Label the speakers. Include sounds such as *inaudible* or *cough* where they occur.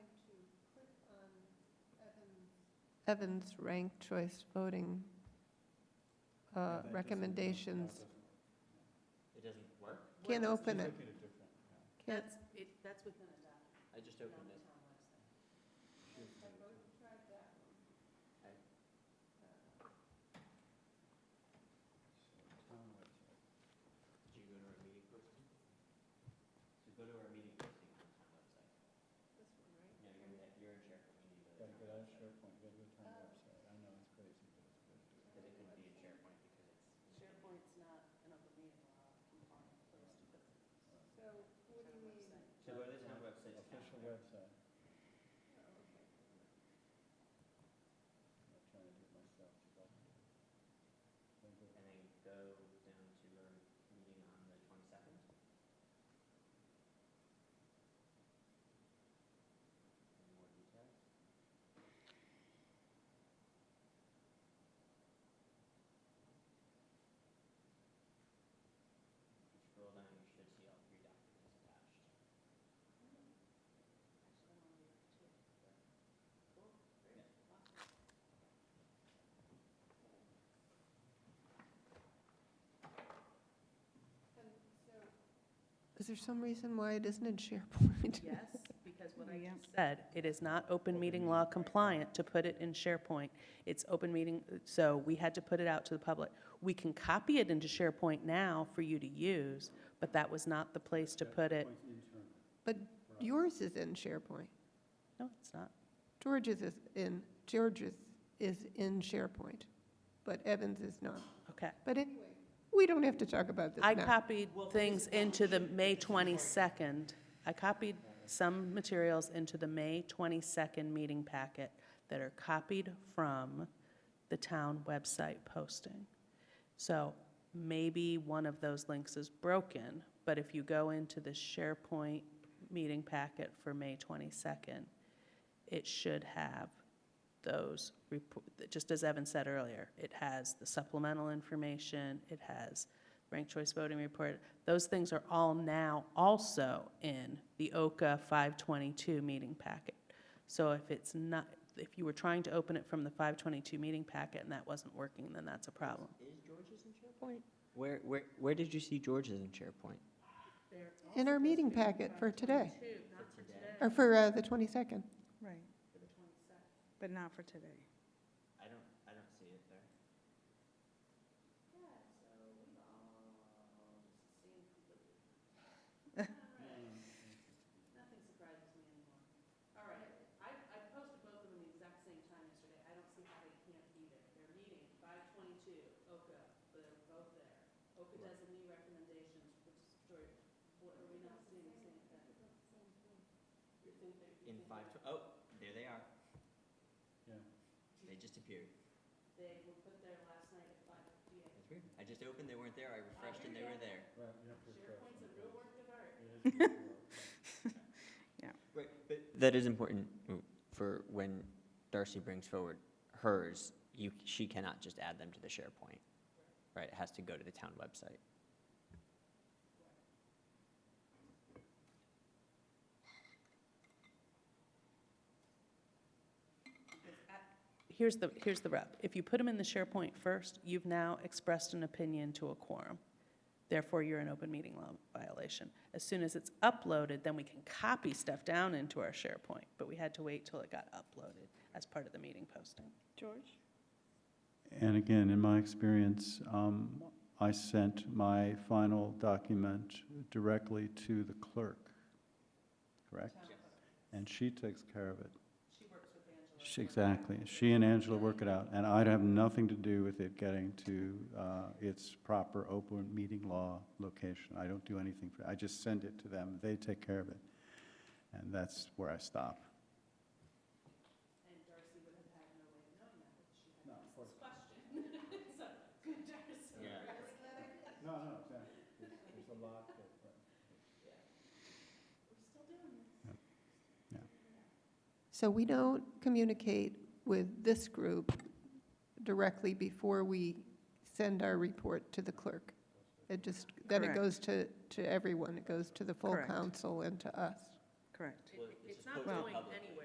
Speaker 1: Evans' ranked choice voting uh, recommendations.
Speaker 2: It doesn't work?
Speaker 1: Can't open it. Can't,
Speaker 3: That's, it, that's within a document.
Speaker 2: I just opened it. Did you go to our meeting posting? So go to our meeting posting on the town website. No, you're, in- you're in SharePoint, you need to go to the town website. Oh. Because it couldn't be in SharePoint because it's.
Speaker 3: SharePoint's not an open meeting law compliant place to put
Speaker 4: So what do you mean?
Speaker 2: So go to the town website. Official
Speaker 5: website.
Speaker 2: Oh, And then go down to our meeting on the twenty-second. Any more details? Scroll down, you should see all three documents attached.
Speaker 3: Actually, I want to leave it too. Cool, great, awesome.
Speaker 1: is there some reason why it isn't in
Speaker 3: *laughs*
Speaker 1: *laughs* SharePoint?
Speaker 3: Yes, because what I
Speaker 4: Yeah.
Speaker 3: just said, it is not open meeting law compliant to put it in SharePoint. It's open meeting, so we had to put it out to the public. We can copy it into SharePoint now for you to use, but that was not the place to put it.
Speaker 1: But yours is in SharePoint.
Speaker 3: No, it's not.
Speaker 1: George's is in, George's is in SharePoint, but Evans is not.
Speaker 3: Okay.
Speaker 1: But anyway, we don't have to talk about this
Speaker 3: I
Speaker 1: now.
Speaker 3: copied things into the May 22nd. I copied some materials into the May 22nd meeting packet that are copied from the town website posting. So maybe one of those links is broken, but if you go into the SharePoint meeting packet for May 22nd, it should have those, repo- just as Evan said earlier, it has the supplemental information, it has ranked choice voting report, those things are all now also in the OCA 522 meeting packet. So if it's not, if you were trying to open it from the 522 meeting packet and that wasn't working, then that's a problem.
Speaker 2: Is George's in SharePoint? Where, where, where did you see George's in SharePoint?
Speaker 1: In our meeting packet for today,
Speaker 2: For today?
Speaker 1: or for uh, the 22nd.
Speaker 4: Right. But not for today.
Speaker 2: I don't, I don't see it there.
Speaker 3: Nothing surprises me anymore. All right, I, I posted both of them the exact same time yesterday, I don't see how they can't be there. They're meeting, five twenty-two, OCA, they're both there. OCA does a new recommendations, which is George, what, are we not seeing the same thing? You think they- you
Speaker 2: In
Speaker 3: think
Speaker 2: five,
Speaker 3: that
Speaker 2: tw- oh, there they are.
Speaker 5: Yeah.
Speaker 2: They just appeared.
Speaker 3: They were put there last night at five P M.
Speaker 2: That's weird. I just opened, they weren't there. I refreshed and they were there.
Speaker 3: SharePoint's a real work of art. *laughs*
Speaker 2: *laughs* Right, but. That is important for when Darcy brings forward hers, you, she cannot just add them to the SharePoint. Right, it has to go to the town website.
Speaker 3: Here's the, here's the rub. If you put them in the SharePoint first, you've now expressed an opinion to a quorum. Therefore, you're an open meeting law violation. As soon as it's uploaded, then we can copy stuff down into our SharePoint, but we had to wait till it got uploaded as part of the meeting posting.
Speaker 4: George?
Speaker 5: And again, in my experience, um, I sent my final document directly to the clerk, correct? And she takes care of it.
Speaker 3: She works with Angela.
Speaker 5: She- Exactly. She and Angela work it out, and I'd have nothing to do with it getting to uh, its proper open meeting law location. I don't do anything for, I just send it to them, they take care of it. And that's where I stop.
Speaker 3: And Darcy would have had no way of knowing that, but she had asked this question. So, good Darcy.
Speaker 2: Yeah.
Speaker 5: No, no, exactly. There's a lot
Speaker 3: We're still doing this.
Speaker 1: So we don't communicate with this group directly before we send our report to the clerk. It just, then it
Speaker 4: Correct.
Speaker 1: goes to, to everyone, it goes to the full
Speaker 4: Correct.
Speaker 1: council and to us.
Speaker 4: Correct.
Speaker 2: Well, it's just posted publicly.